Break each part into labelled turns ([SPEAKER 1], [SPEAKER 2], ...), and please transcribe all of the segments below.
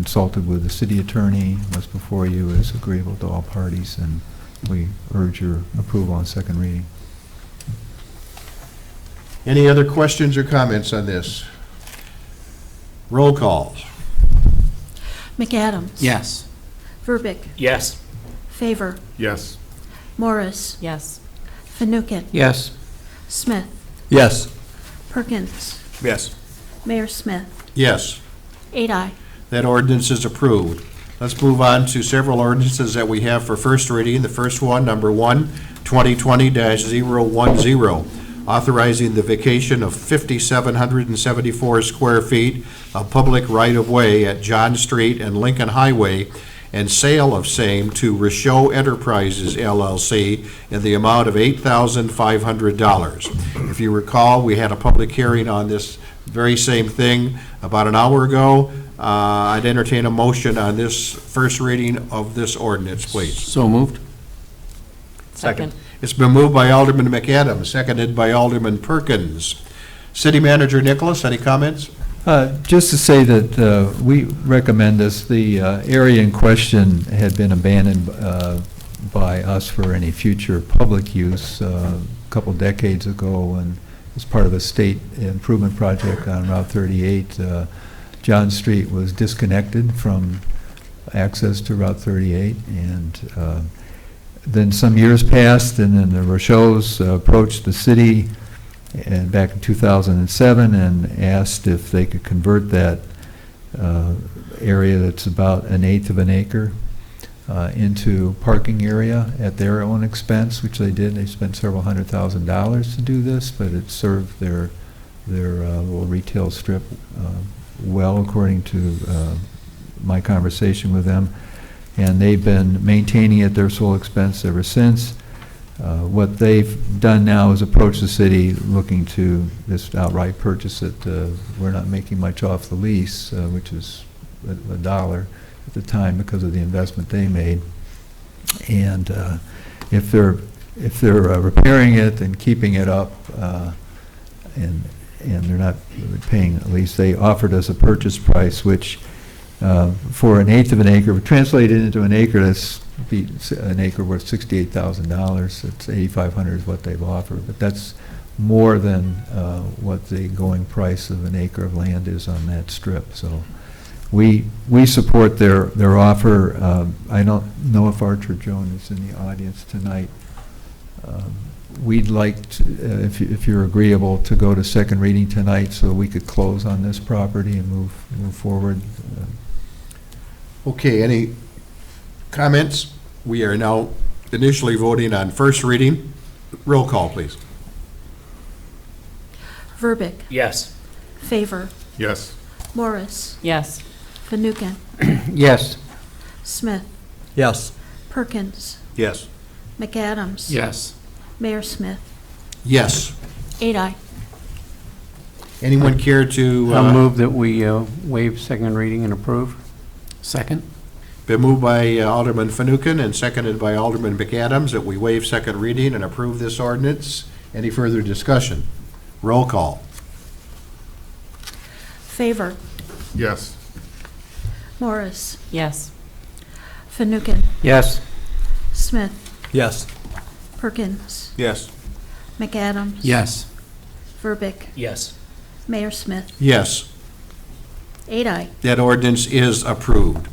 [SPEAKER 1] consulted with the city attorney, what's before you is agreeable to all parties, and we urge your approval on second reading.
[SPEAKER 2] Any other questions or comments on this? Roll call.
[SPEAKER 3] McAdams.
[SPEAKER 4] Yes.
[SPEAKER 3] Verbic.
[SPEAKER 4] Yes.
[SPEAKER 3] Favor.
[SPEAKER 5] Yes.
[SPEAKER 3] Morris.
[SPEAKER 6] Yes.
[SPEAKER 3] Fanouken.
[SPEAKER 4] Yes.
[SPEAKER 3] Smith.
[SPEAKER 4] Yes.
[SPEAKER 3] Perkins.
[SPEAKER 4] Yes.
[SPEAKER 3] Mayor Smith.
[SPEAKER 2] Yes,
[SPEAKER 3] Eight aye.
[SPEAKER 2] that ordinance is approved. Let's move on to several ordinances that we have for first reading. The first one, number one, 2020-010, authorizing the vacation of 5,774 square feet of public right-of-way at John Street and Lincoln Highway and sale of same to Richeau Enterprises LLC in the amount of $8,500. If you recall, we had a public hearing on this very same thing about an hour ago. Uh, I'd entertain a motion on this first reading of this ordinance, please.
[SPEAKER 4] So moved?
[SPEAKER 6] Second.
[SPEAKER 2] It's been moved by Alderman McAdams, seconded by Alderman Perkins. City Manager Nicholas, any comments?
[SPEAKER 1] Uh, Just to say that uh, we recommend this, the uh, area in question had been abandoned uh, by us for any future public use uh, a couple decades ago, and as part of a state improvement project on Route 38, uh, John Street was disconnected from access to Route 38, and uh, then some years passed, and then the Rochos approached the city and back in 2007 and asked if they could convert that uh, area that's about an eighth of an acre uh, into parking area at their own expense, which they did. They spent several hundred thousand dollars to do this, but it served their, their uh, little retail strip uh, well, according to uh, my conversation with them. And they've been maintaining it at their sole expense ever since. Uh, What they've done now is approach the city looking to this outright purchase it. Uh, We're not making much off the lease, uh, which is a a dollar at the time because of the investment they made. And uh, if they're, if they're uh, repairing it and keeping it up, uh, and, and they're not paying a lease, they offered us a purchase price, which uh, for an eighth of an acre, translated into an acre, that's be s- an acre worth sixty-eight thousand dollars, it's eighty-five hundred is what they've offered, but that's more than uh, what the going price of an acre of land is on that strip, so we, we support their, their offer. Um, I don't know if Archer Joan is in the audience tonight. Um, We'd like, to, uh, if you- if you're agreeable, to go to second reading tonight so we could close on this property and move, move forward. Uh,
[SPEAKER 2] Okay, any comments? We are now initially voting on first reading. Roll call, please.
[SPEAKER 3] Verbic.
[SPEAKER 4] Yes.
[SPEAKER 3] Favor.
[SPEAKER 5] Yes.
[SPEAKER 3] Morris.
[SPEAKER 6] Yes.
[SPEAKER 3] Fanouken.
[SPEAKER 4] Yes.
[SPEAKER 3] Smith.
[SPEAKER 4] Yes.
[SPEAKER 3] Perkins.
[SPEAKER 2] Yes.
[SPEAKER 3] McAdams.
[SPEAKER 4] Yes.
[SPEAKER 3] Mayor Smith.
[SPEAKER 2] Yes.
[SPEAKER 3] Eight aye.
[SPEAKER 2] Anyone care to? uh,
[SPEAKER 7] I'll move that we uh, waive second reading and approve.
[SPEAKER 4] Second?
[SPEAKER 2] Been moved by uh, Alderman Fanouken and seconded by Alderman McAdams that we waive second reading and approve this ordinance. Any further discussion? Roll call.
[SPEAKER 3] Favor.
[SPEAKER 5] Yes.
[SPEAKER 3] Morris.
[SPEAKER 6] Yes.
[SPEAKER 3] Fanouken.
[SPEAKER 7] Yes.
[SPEAKER 3] Smith.
[SPEAKER 4] Yes.
[SPEAKER 3] Perkins.
[SPEAKER 2] Yes.
[SPEAKER 3] McAdams.
[SPEAKER 4] Yes.
[SPEAKER 3] Verbic.
[SPEAKER 4] Yes.
[SPEAKER 3] Mayor Smith.
[SPEAKER 2] Yes.
[SPEAKER 3] Eight aye.
[SPEAKER 2] That ordinance is approved.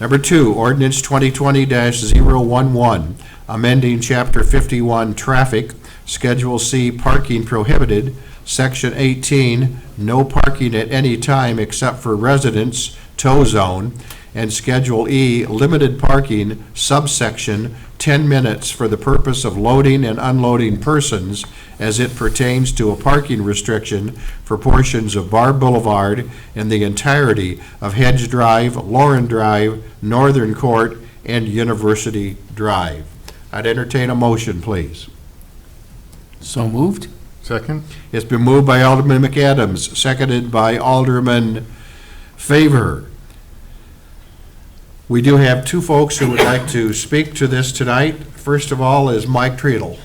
[SPEAKER 2] Number two, ordinance 2020-011, amending Chapter 51 Traffic, Schedule C Parking Prohibited, Section 18, No Parking at Any Time Except for Residents, Tow Zone, and Schedule E Limited Parking, Subsection 10 Minutes for the Purpose of Loading and Unloading Persons as it pertains to a parking restriction for portions of Bar Boulevard and the entirety of Hedge Drive, Lauren Drive, Northern Court, and University Drive. I'd entertain a motion, please.
[SPEAKER 4] So moved?
[SPEAKER 5] Second?
[SPEAKER 2] It's been moved by Alderman McAdams, seconded by Alderman Favor. We do have two folks who would like to speak to this tonight. First of all is Mike Treadle.